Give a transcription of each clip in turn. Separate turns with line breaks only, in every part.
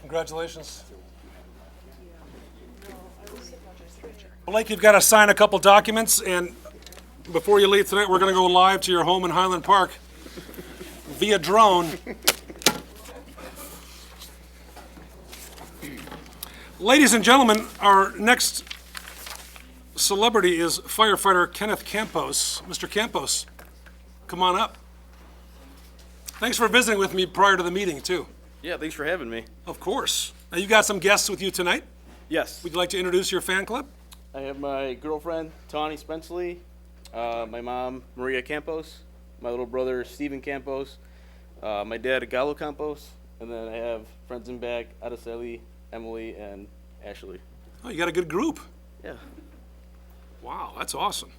Congratulations. Blake, you've got to sign a couple documents, and before you leave tonight, we're going to go live to your home in Highland Park via drone. Ladies and gentlemen, our next celebrity is firefighter Kenneth Campos. Mr. Campos, come on up. Thanks for visiting with me prior to the meeting, too.
Yeah, thanks for having me.
Of course. Now, you've got some guests with you tonight.
Yes,
Would you like to introduce your fan club?
I have my girlfriend Tawny Spenceley, uh, my mom Maria Campos, my little brother Steven Campos, uh, my dad Galo Campos, and then I have friends in back Adeseli, Emily, and Ashley.
Oh, you got a good group.
Yeah.
Wow, that's awesome.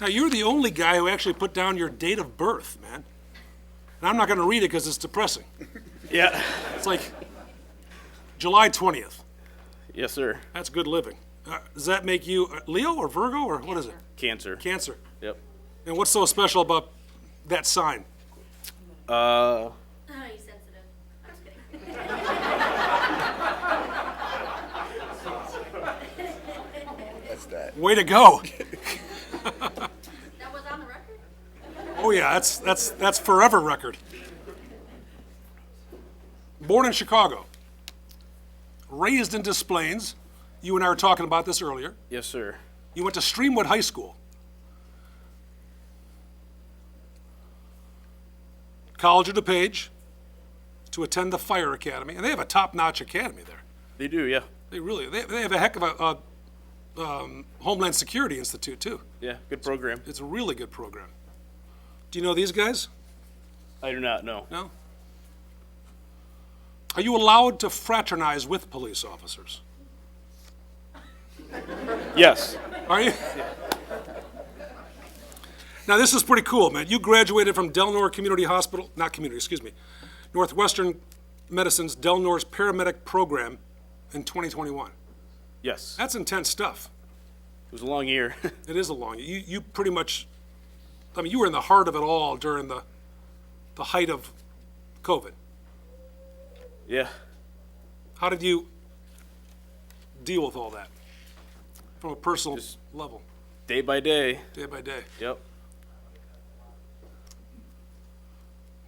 Now, you're the only guy who actually put down your date of birth, man. And I'm not going to read it because it's depressing.
Yeah.
It's like July 20th.
yes, sir.
That's good living. Uh, does that make you uh, Leo or Virgo or what is it?
Cancer.
Cancer.
yep.
And what's so special about that sign?
Uh,
Oh, you sensitive. I'm just kidding.
Way to go.
That was on the record?
Oh yeah, that's that's that's forever record. Born in Chicago, raised in Des Plaines. You and I were talking about this earlier.
yes, sir.
You went to Streamwood High School. College of DePage to attend the Fire Academy, and they have a top-notch academy there.
They do. Yeah.
They really they, they have a heck of a, a um, Homeland Security Institute too.
Yeah. Good program.
It's a really good program. Do you know these guys?
I do not know.
No? Are you allowed to fraternize with police officers?
Yes.
Are you? Now, this is pretty cool, man. You graduated from Delnor Community Hospital, not community, excuse me, Northwestern Medicine's Delnor's paramedic program in 2021.
Yes. It
That's intense stuff.
was a long year.
It is a long, you, you pretty much, I mean, you were in the heart of it all during the, the height of COVID.
yeah.
How did you deal with all that from a personal level,
Day by day.
day by day?
Yep.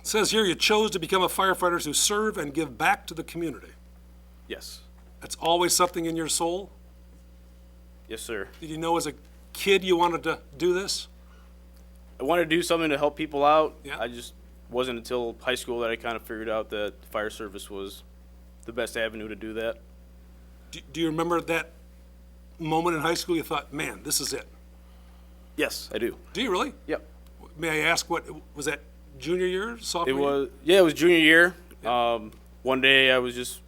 It says here you chose to become a firefighter who serve and give back to the community.
Yes.
That's always something in your soul.
Yes, sir.
Did you know as a kid you wanted to do this?
I wanted to do something to help people out.
Yeah.
I just wasn't until high school that I kind of figured out that fire service was the best avenue to do that.
Do, do you remember that moment in high school you thought, man, this is it?
Yes, I do.
Do you really?
Yep.
May I ask what was that junior year,
It
sophomore? year?
was yeah, it was junior year. Um, one day I was just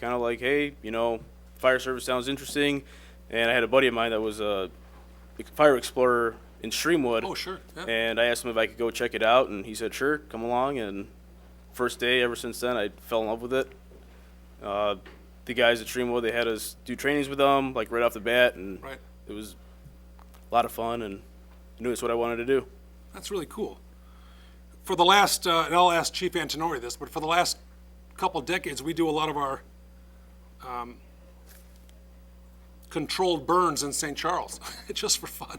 kind of like, hey, you know, fire service sounds interesting, and I had a buddy of mine that was a ex- fire explorer in Streamwood.
Oh, sure, yeah.
And I asked him if I could go check it out, and he said, sure, come along. And first day, ever since then, I fell in love with it. Uh, the guys at Streamwood, they had us do trainings with them, like right off the bat, and
Right.
it was a lot of fun, and I knew it's what I wanted to do.
That's really cool. For the last, uh, and I'll ask Chief Antonori this, but for the last couple decades, we do a lot of our um, controlled burns in St. Charles, just for fun.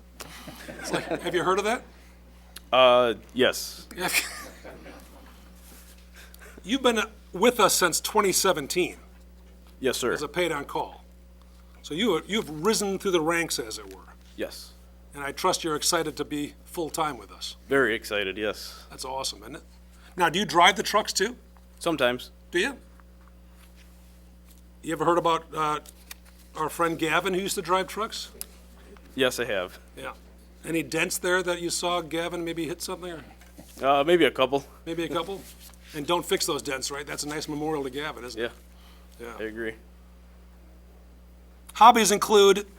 It's like, have you heard of that?
Uh, yes,
Yeah. You've been uh, with us since 2017
yes, sir.
as a paid-on call. So you, you've risen through the ranks, as it were,
Yes.
and I trust you're excited to be full-time with us.
Very excited, yes.
That's awesome, isn't it? Now, do you drive the trucks, too?
Sometimes.
Do you? You ever heard about uh, our friend Gavin who used to drive trucks?
Yes, I have.
Yeah. Any dents there that you saw Gavin maybe hit something or
Uh, maybe a couple.
maybe a couple? And don't fix those dents, right? That's a nice memorial to Gavin, isn't
Yeah,
it?
I agree.
Hobbies include